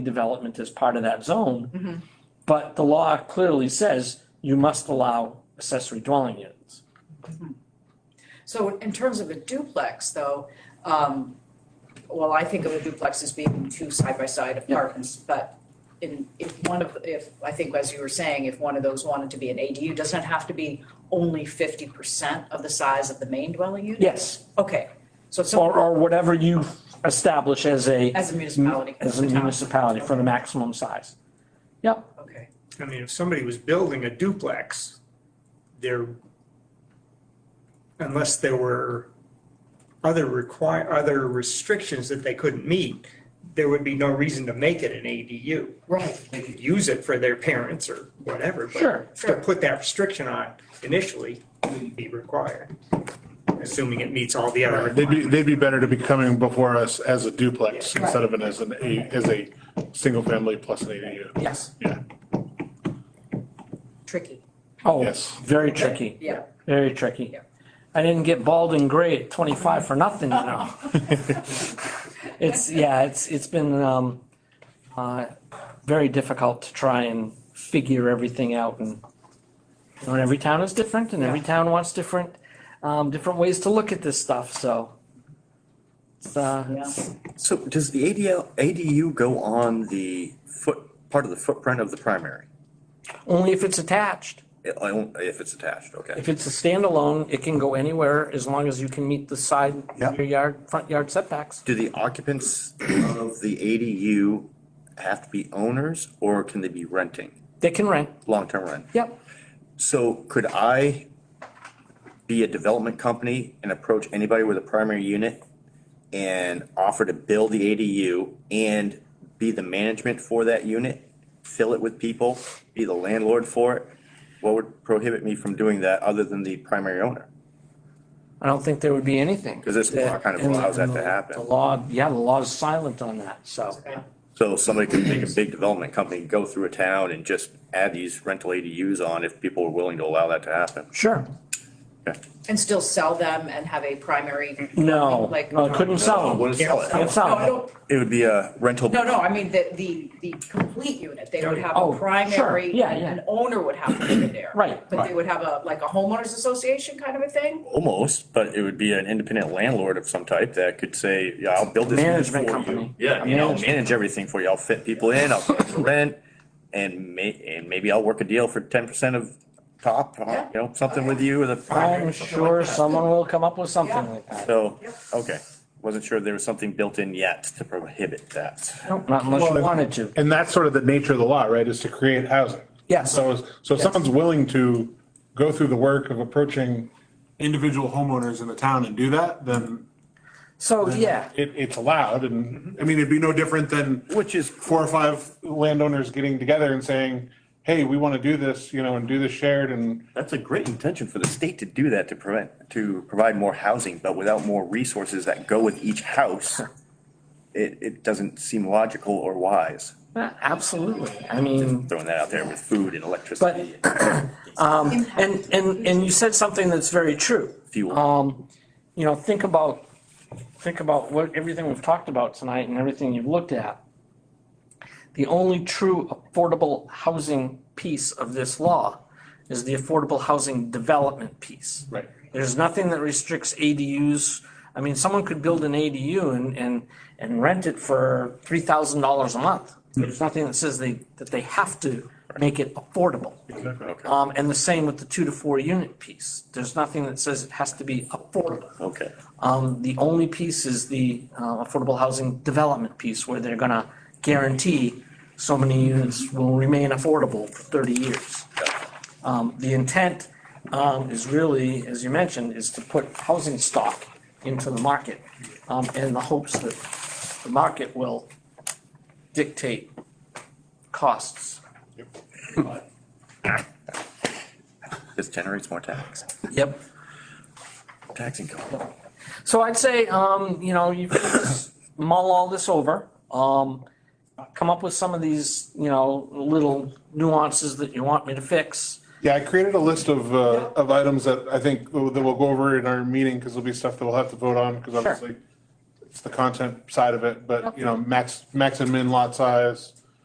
development as part of that Mhm. zone. But the law clearly says you must allow accessory dwelling units. So in terms of a duplex though, um, well, I think of a duplex as being two side by side apartments, but in, if one of, if, I think as you were saying, if one of those wanted to be an ADU, doesn't it have to be only fifty percent of the size of the main dwelling unit? Yes, Okay, so it's or, or whatever you establish as a, as a municipality, as a town. municipality for the maximum size. Okay, I mean, if somebody was building a duplex, there, unless there were other require, other restrictions that they couldn't meet, there would be no reason to make it an ADU. right, They could use it for their parents or whatever, but Sure, to put that restriction on initially wouldn't be required, assuming it meets all the other They'd be, requirements. they'd be better to be coming before us as a duplex Yeah. instead of an, as an, A- as a single family plus an ADU. yes. tricky, Oh, Yes. very tricky, yeah. very tricky. Yeah. I didn't get bald and gray at twenty-five for nothing, you know? It's, yeah, it's, it's been, um, uh, very difficult to try and figure everything out and, you know, and every town is different and every town wants different, um, different ways to look at this stuff, so. It's, uh, it's- So does the ADL, ADU go on the foot, part of the footprint of the primary? only if it's attached. I- I don't- If it's attached, okay. If it's a standalone, it can go anywhere as long as you can meet the side, Yeah. your yard, front yard setbacks. Do the occupants of the ADU have to be owners or can they be renting, They can rent, long-term rent? yep. So could I be a development company and approach anybody with a primary unit and offer to build the ADU and be the management for that unit? Fill it with people, be the landlord for it? What would prohibit me from doing that other than the primary owner? I don't think there would be anything. 'Cause this law kind of And- allows that to and the- happen. The law, yeah, the law is silent on that, so. So somebody could make a big development company, go through a town and just add these rental ADUs on if people are willing to allow that to happen. Sure. And still sell them and have a primary, No, Like- no, I couldn't sell them. Wouldn't sell it. Can't no, sell I them. don't, It would be a rental. No, no, I mean the, the, the complete unit, they would have Oh, a sure, primary, yeah, yeah. an owner would have to live in there. Right, But they right. would have a, like a homeowners association kind of a thing? Almost, but it would be an independent landlord of some type that could say, yeah, I'll build this. unit Management for you." company. Yeah, I mean, I'll Management. manage everything for you. I'll fit people in, I'll pay the rent, and may, and maybe I'll work a deal for ten percent of top, uh, you know, something with you Oh, with a. primary I'm or something like sure that. someone will come up with something Yeah. like that. So, Yep. okay, wasn't sure if there was something built in yet to prohibit that. Nope, Not unless you Well, wanted to. And that's sort of the nature of the law, right, is to create housing. Yes. So, so if Yes. someone's willing to go through the work of approaching individual homeowners in the town and do that, then So, yeah, it, it's allowed and, I mean, it'd be no different than Which is four or five landowners getting together and saying, hey, we want to do this, you know, and do this shared and That's a great intention for the state to do that, to prevent, to provide more housing, but without more resources that go with each house, it, it doesn't seem logical or wise, absolutely. I mean, throwing that out there with food and electricity. But- and, and, and you said something that's very true. Fuel. Um, you know, think about, think about what, everything we've talked about tonight and everything you've looked at. The only true affordable housing piece of this law is the affordable housing development piece. Right. There's nothing that restricts ADUs. I mean, someone could build an ADU and, and, and rent it for three thousand dollars a month. There's nothing that says they, that they have to make it affordable. Okay, Um, and the same with the two to four unit piece. There's nothing that says it has to be affordable. okay. Um, the only piece is the, uh, affordable housing development piece where they're gonna guarantee so many units will remain affordable for thirty years. Um, the intent, um, is really, as you mentioned, is to put housing stock into the market, um, in the hopes that the market will dictate costs. This generates more tax, Yep. tax income. So I'd say, um, you know, you can just mull all this over, um, come up with some of these, you know, little nuances that you want me to fix. Yeah, I created a list of, uh, of items that I think that we'll go over in our meeting, because there'll be stuff that we'll have to vote on, because obviously it's the content side of it, but, you know, max, max and min lot size,